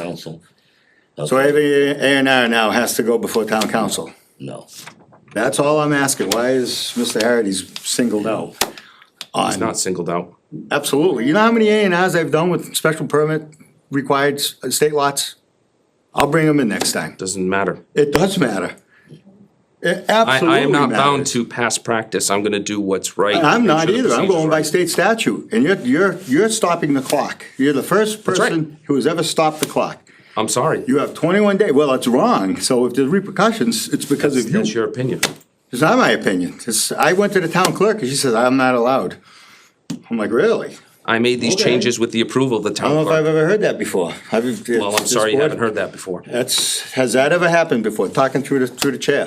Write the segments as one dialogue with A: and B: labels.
A: council.
B: So every A and R now has to go before town council.
A: No,
B: That's all I'm asking. Why is Mr. Harry's singled out?
C: It's not singled out.
B: Absolutely. You know how many A and Rs I've done with special permit required s- uh, state lots? I'll bring them in next time.
C: Doesn't matter.
B: It does matter. It
C: I,
B: absolutely
C: I am not bound
B: matters.
C: to past practice. I'm gonna do what's right.
B: I'm
C: Make
B: not
C: sure the
B: either. I'm
C: procedure's
B: going by
C: right.
B: state statute and you're, you're, you're stopping the clock. You're the first
C: right.
B: person who has ever stopped the clock.
C: I'm sorry.
B: You have twenty-one days. Well, it's wrong. So if there's repercussions, it's because of you.
C: That's your opinion.
B: It's not my opinion. It's, I went to the town clerk and she says, I'm not allowed. I'm like, really?
C: I made these
B: Okay.
C: changes with the approval of the
B: I don't
C: town
B: know if I've
C: clerk.
B: ever heard that before. Well,
C: Well, I'm sorry you haven't heard that before.
B: That's, has that ever happened before, talking through the, through the chair?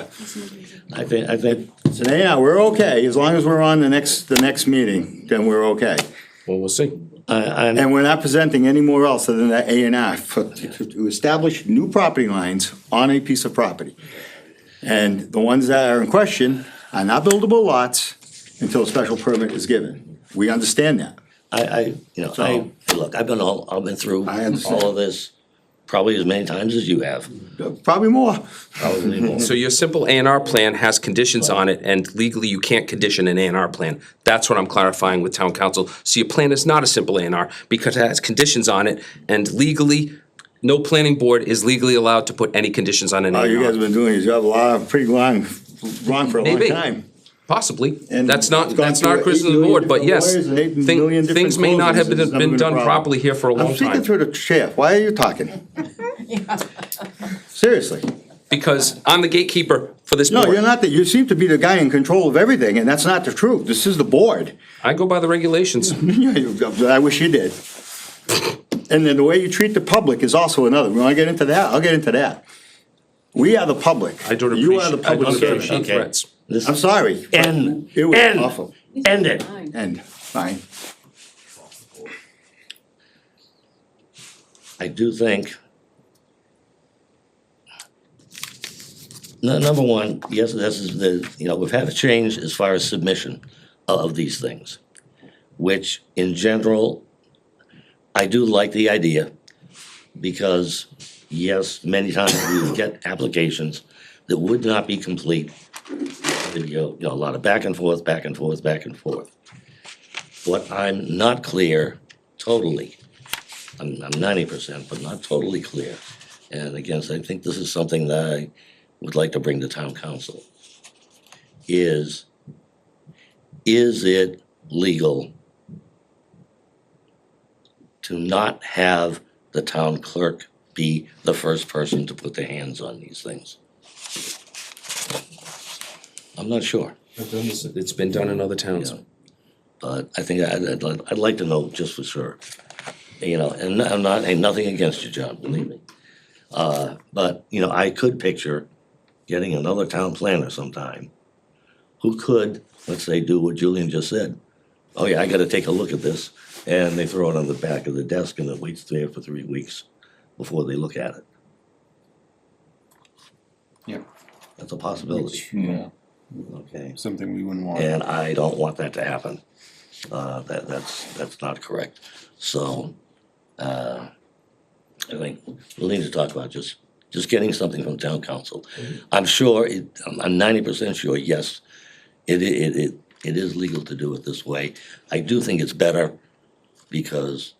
A: I think, I think,
B: So yeah, we're okay, as long as we're on the next, the next meeting, then we're okay.
C: Well, we'll see.
A: I, I,
B: And we're not presenting any more else other than that A and R for, to establish new property lines on a piece of property. And the ones that are in question are not buildable lots until a special permit is given. We understand that.
A: I, I, you know, I, look, I've been all, I've been through
B: I understand.
A: all of this probably as many times as you have,
B: Probably more.
A: probably more.
C: So your simple A and R plan has conditions on it, and legally you can't condition an A and R plan. That's what I'm clarifying with town council. So your plan is not a simple A and R because it has conditions on it, and legally, no planning board is legally allowed to put any conditions on an A
B: Oh,
C: and
B: you
C: R.
B: guys have been doing your job a lot, pretty long, long for a long
C: Maybe.
B: time.
C: Possibly.
B: And
C: That's not,
B: it's gone
C: that's
B: through
C: not a
B: eight
C: criticism of the
B: million
C: board, but
B: different
C: yes,
B: lawyers and eight
C: thing-
B: million different
C: things may not have
B: closings,
C: been,
B: it's never
C: been
B: been a
C: done
B: problem.
C: properly here for a
B: I'm
C: long
B: speaking
C: time.
B: through the chair. Why are you talking? Seriously.
C: Because I'm the gatekeeper for this
B: No, you're
C: board.
B: not, the- you seem to be the guy in control of everything, and that's not the truth. This is the board.
C: I go by the regulations.
B: I wish you did. And then the way you treat the public is also another. We want to get into that? I'll get into that. We are the public.
C: I don't
B: You are the
C: appreciate, I
B: public
C: don't
B: servant.
C: appreciate
A: Okay.
C: threats.
A: This-
B: I'm sorry. but
A: End,
B: It was
A: end,
B: awful.
A: end it.
B: End. Fine.
A: I do think. Nu- Number one, yes, this is the, you know, we've had a change as far as submission of these things, which in general, I do like the idea because, yes, many times we would get applications that would not be complete. There'd be, you know, a lot of back and forth, back and forth, back and forth. What I'm not clear totally I'm, I'm ninety percent, but not totally clear. And again, so I think this is something that I would like to bring to town council. Is, is it legal to not have the town clerk be the first person to put their hands on these things? I'm not sure,
C: It's been done in other towns.
A: but I think I'd, I'd, like- I'd like to know just for sure. you know, and I'm not, and nothing against you, John, believe me. Uh, but, you know, I could picture getting another town planner sometime who could, let's say, do what Julian just said. Oh yeah, I gotta take a look at this, and they throw it on the back of the desk and it waits there for three weeks before they look at it.
D: Yeah.
A: That's a possibility,
D: Yeah,
A: okay?
D: something we wouldn't want.
A: And I don't want that to happen. Uh, that, that's, that's not correct. So, uh, I think we'll need to talk about just, just getting something from town council. I'm sure, it, I'm- I'm ninety percent sure, yes, it, i- it, it, it is legal to do it this way. I do think it's better because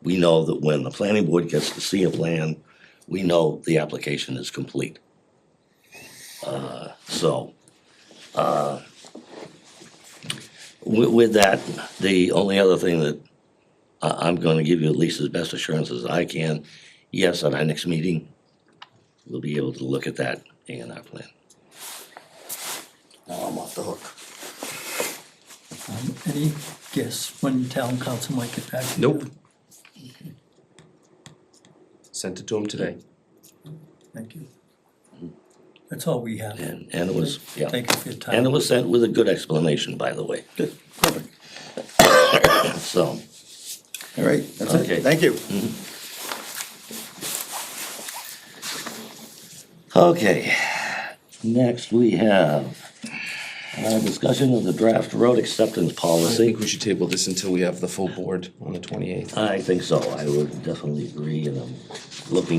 A: we know that when the planning board gets to see a plan, we know the application is complete. Uh, so, With, with that, the only other thing that I, I'm gonna give you at least as best assurances I can, yes, at our next meeting, we'll be able to look at that A and R plan.
B: Now I'm off the hook.
E: Um, Any guess when town council might get back? to you?
C: Nope. Sent it to him today.
E: Thank you. That's all we have.
A: And, and it was, yeah,
E: Thank you for your time.
A: and it was sent with a good explanation, by the way. Good. So,
B: All right, that's
A: Okay.
B: it. Thank you.
A: okay, next we have uh, discussion of the draft road acceptance
C: I
A: policy.
C: think we should table this until we have the full board on the twenty-eighth.
A: I think so, I would definitely agree, and I'm looking